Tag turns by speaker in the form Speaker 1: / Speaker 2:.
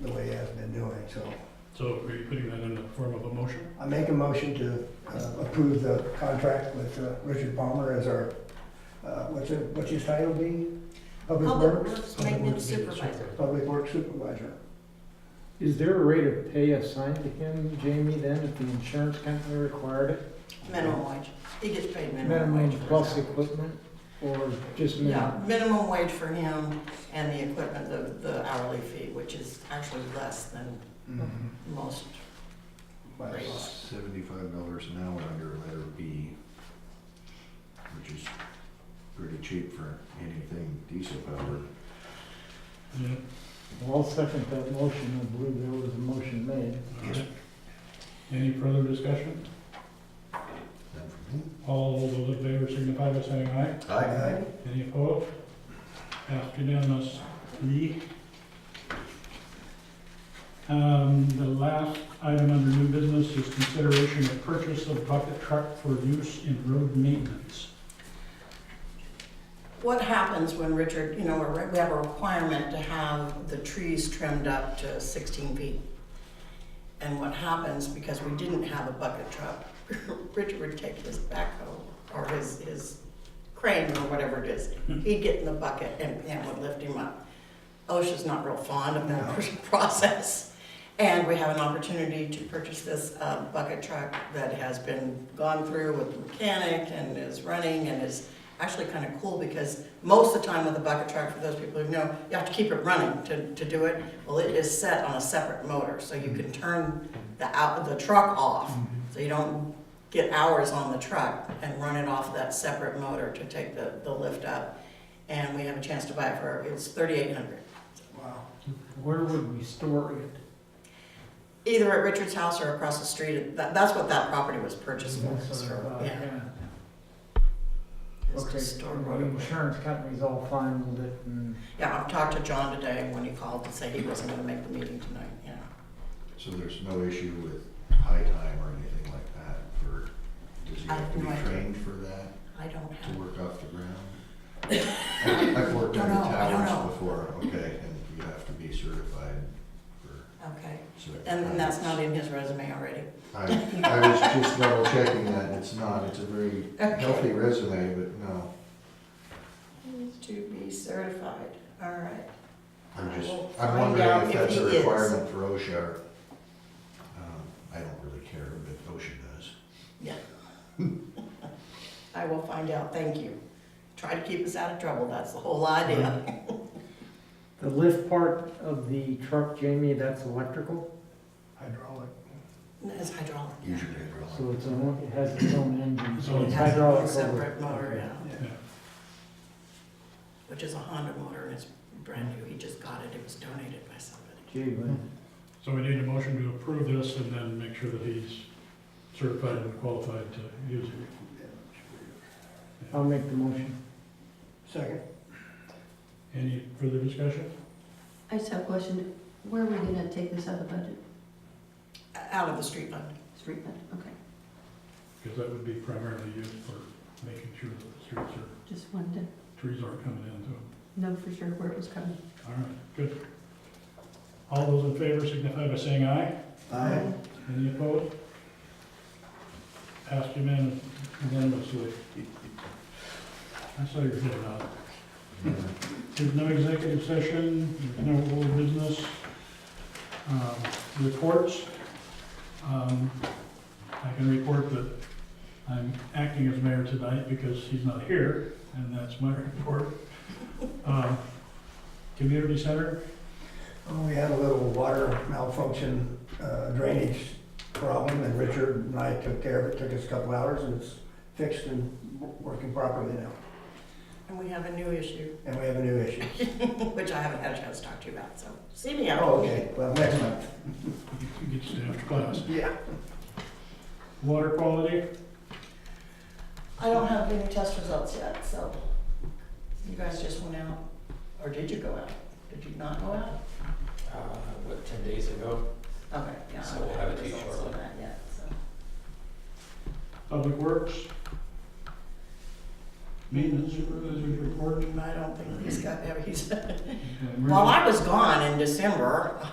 Speaker 1: the way I've been doing, so.
Speaker 2: So are you putting that in the form of a motion?
Speaker 1: I make a motion to uh, approve the contract with uh, Richard Palmer as our, uh, what's it, what's his title be? Public
Speaker 3: Public
Speaker 1: Works,
Speaker 3: Works Maintenance Supervisor.
Speaker 1: Public Works Supervisor.
Speaker 4: Is there a rate of pay assigned to him, Jamie, then, if the insurance company required it?
Speaker 3: Minimum wage. He gets paid minimum wage.
Speaker 4: Minimum
Speaker 3: for his
Speaker 4: plus
Speaker 3: hours.
Speaker 4: equipment, or just
Speaker 3: Yeah,
Speaker 4: minimum?
Speaker 3: minimum wage for him and the equipment, the, the hourly fee, which is actually less than most.
Speaker 1: By the law.
Speaker 5: Seventy-five dollars an hour under letter B, which is pretty cheap for anything diesel powered.
Speaker 2: Yeah.
Speaker 4: Well, I'll second that motion, I believe there was a motion made.
Speaker 2: All right. Any further discussion?
Speaker 5: None for me.
Speaker 2: All those in favor signify by saying aye.
Speaker 1: Aye.
Speaker 2: Any opposed? Passed unanimously. Um, the last item under new business is consideration of purchase of bucket truck for use in road maintenance.
Speaker 3: What happens when Richard, you know, we're- we have a requirement to have the trees trimmed up to sixteen feet? And what happens, because we didn't have a bucket truck, Richard would take his backhoe or his, his crane or whatever it is. He'd get in the bucket and Pam would lift him up. OSHA's not real fond of that process. And we have an opportunity to purchase this uh, bucket truck that has been gone through with the mechanic and is running and is actually kind of cool because most of the time with a bucket truck, for those people who know, you have to keep it running to, to do it. Well, it is set on a separate motor, so you can turn the out, the truck off, so you don't get hours on the truck and run it off that separate motor to take the, the lift up. And we have a chance to buy it for, it's thirty-eight hundred.
Speaker 1: Wow.
Speaker 4: Where would we store it?
Speaker 3: Either at Richard's house or across the street, that, that's what that property was purchased for,
Speaker 4: That's
Speaker 3: is
Speaker 4: what I
Speaker 3: for-
Speaker 4: thought,
Speaker 3: yeah. is to
Speaker 4: Okay,
Speaker 3: store
Speaker 4: well,
Speaker 3: right
Speaker 4: the
Speaker 3: away.
Speaker 4: insurance company's all fine with it, and
Speaker 3: Yeah, I've talked to John today when he called to say he wasn't gonna make the meeting tonight, yeah.
Speaker 5: So there's no issue with high time or anything like that for, does he
Speaker 3: I
Speaker 5: have to be
Speaker 3: have no idea.
Speaker 5: trained for that,
Speaker 3: I don't have.
Speaker 5: to work off the ground? I- I've worked
Speaker 3: Don't
Speaker 5: under
Speaker 3: know, I don't know.
Speaker 5: towers before, okay, and you have to be certified for
Speaker 3: Okay,
Speaker 5: certain.
Speaker 3: and and that's not in his resume already.
Speaker 5: I, I was just double checking that, it's not, it's a very
Speaker 3: Okay.
Speaker 5: healthy resume, but no,
Speaker 3: To be certified, all right.
Speaker 5: I'm just,
Speaker 3: I will
Speaker 5: I'm
Speaker 3: find
Speaker 5: wondering
Speaker 3: out
Speaker 5: if
Speaker 3: if
Speaker 5: that's a
Speaker 3: he is.
Speaker 5: requirement for OSHA. or- um, I don't really care, but OSHA does.
Speaker 3: I will find out, thank you. Try to keep us out of trouble, that's the whole idea.
Speaker 4: the lift part of the truck, Jamie, that's electrical,
Speaker 1: Hydraulic.
Speaker 3: It's hydraulic.
Speaker 5: Usually they
Speaker 4: so it's own, it has its own engine,
Speaker 2: So
Speaker 4: so
Speaker 3: It
Speaker 4: it's
Speaker 3: has a little
Speaker 4: hydraulic. over-
Speaker 3: separate motor,
Speaker 4: okay.
Speaker 3: yeah,
Speaker 1: Yeah.
Speaker 3: which is a Honda motor and it's brand new, he just got it, it was donated by somebody.
Speaker 4: Gee, well,
Speaker 2: So we need a motion to approve this and then make sure that he's certified and qualified to use it.
Speaker 4: I'll make the motion.
Speaker 1: Second.
Speaker 2: Any further discussion?
Speaker 6: I just have a question. Where are we gonna take this out of the budget?
Speaker 3: O- Out of the street fund.
Speaker 6: Street fund, okay.
Speaker 2: Because that would be primarily used for making sure that the streets are,
Speaker 6: Just wanted
Speaker 2: trees aren't coming into them.
Speaker 6: to know for sure where it was coming.
Speaker 2: All right, good. All those in favor signify by saying aye.
Speaker 1: Aye.
Speaker 2: Any opposed? Passed unanim- unanimously. I saw your head nod.
Speaker 5: were wrong.
Speaker 2: There's no executive session, there's no old business. Um, Reports. Um, I can report that I'm acting as mayor tonight because he's not here, and that's my report. Um, Community center,
Speaker 1: Well, Oh, We had a little water malfunction uh, drainage problem, and Richard and I took care of it, took us a couple hours, and it's fixed and w- working properly now.
Speaker 3: And we have a new issue,
Speaker 1: And we have a new issue.
Speaker 3: which I haven't had a chance to talk to you about, so see me out.
Speaker 1: Oh, okay, well, next month.
Speaker 2: you get staffed class.
Speaker 1: Yeah.
Speaker 2: Water quality,
Speaker 3: I don't have any test results yet, so you guys just went out, or did you go out? Did you not go out?
Speaker 7: uh, what, ten days ago?
Speaker 3: Okay, yeah. I
Speaker 7: So
Speaker 3: don't
Speaker 7: we'll have it to you
Speaker 3: results on
Speaker 7: shortly.
Speaker 3: that yet, so.
Speaker 2: public works. Maintenance supervisor's report.
Speaker 3: I don't think he's got, ever- he's,
Speaker 2: Okay,
Speaker 3: while
Speaker 2: emergency-
Speaker 3: I was gone in December,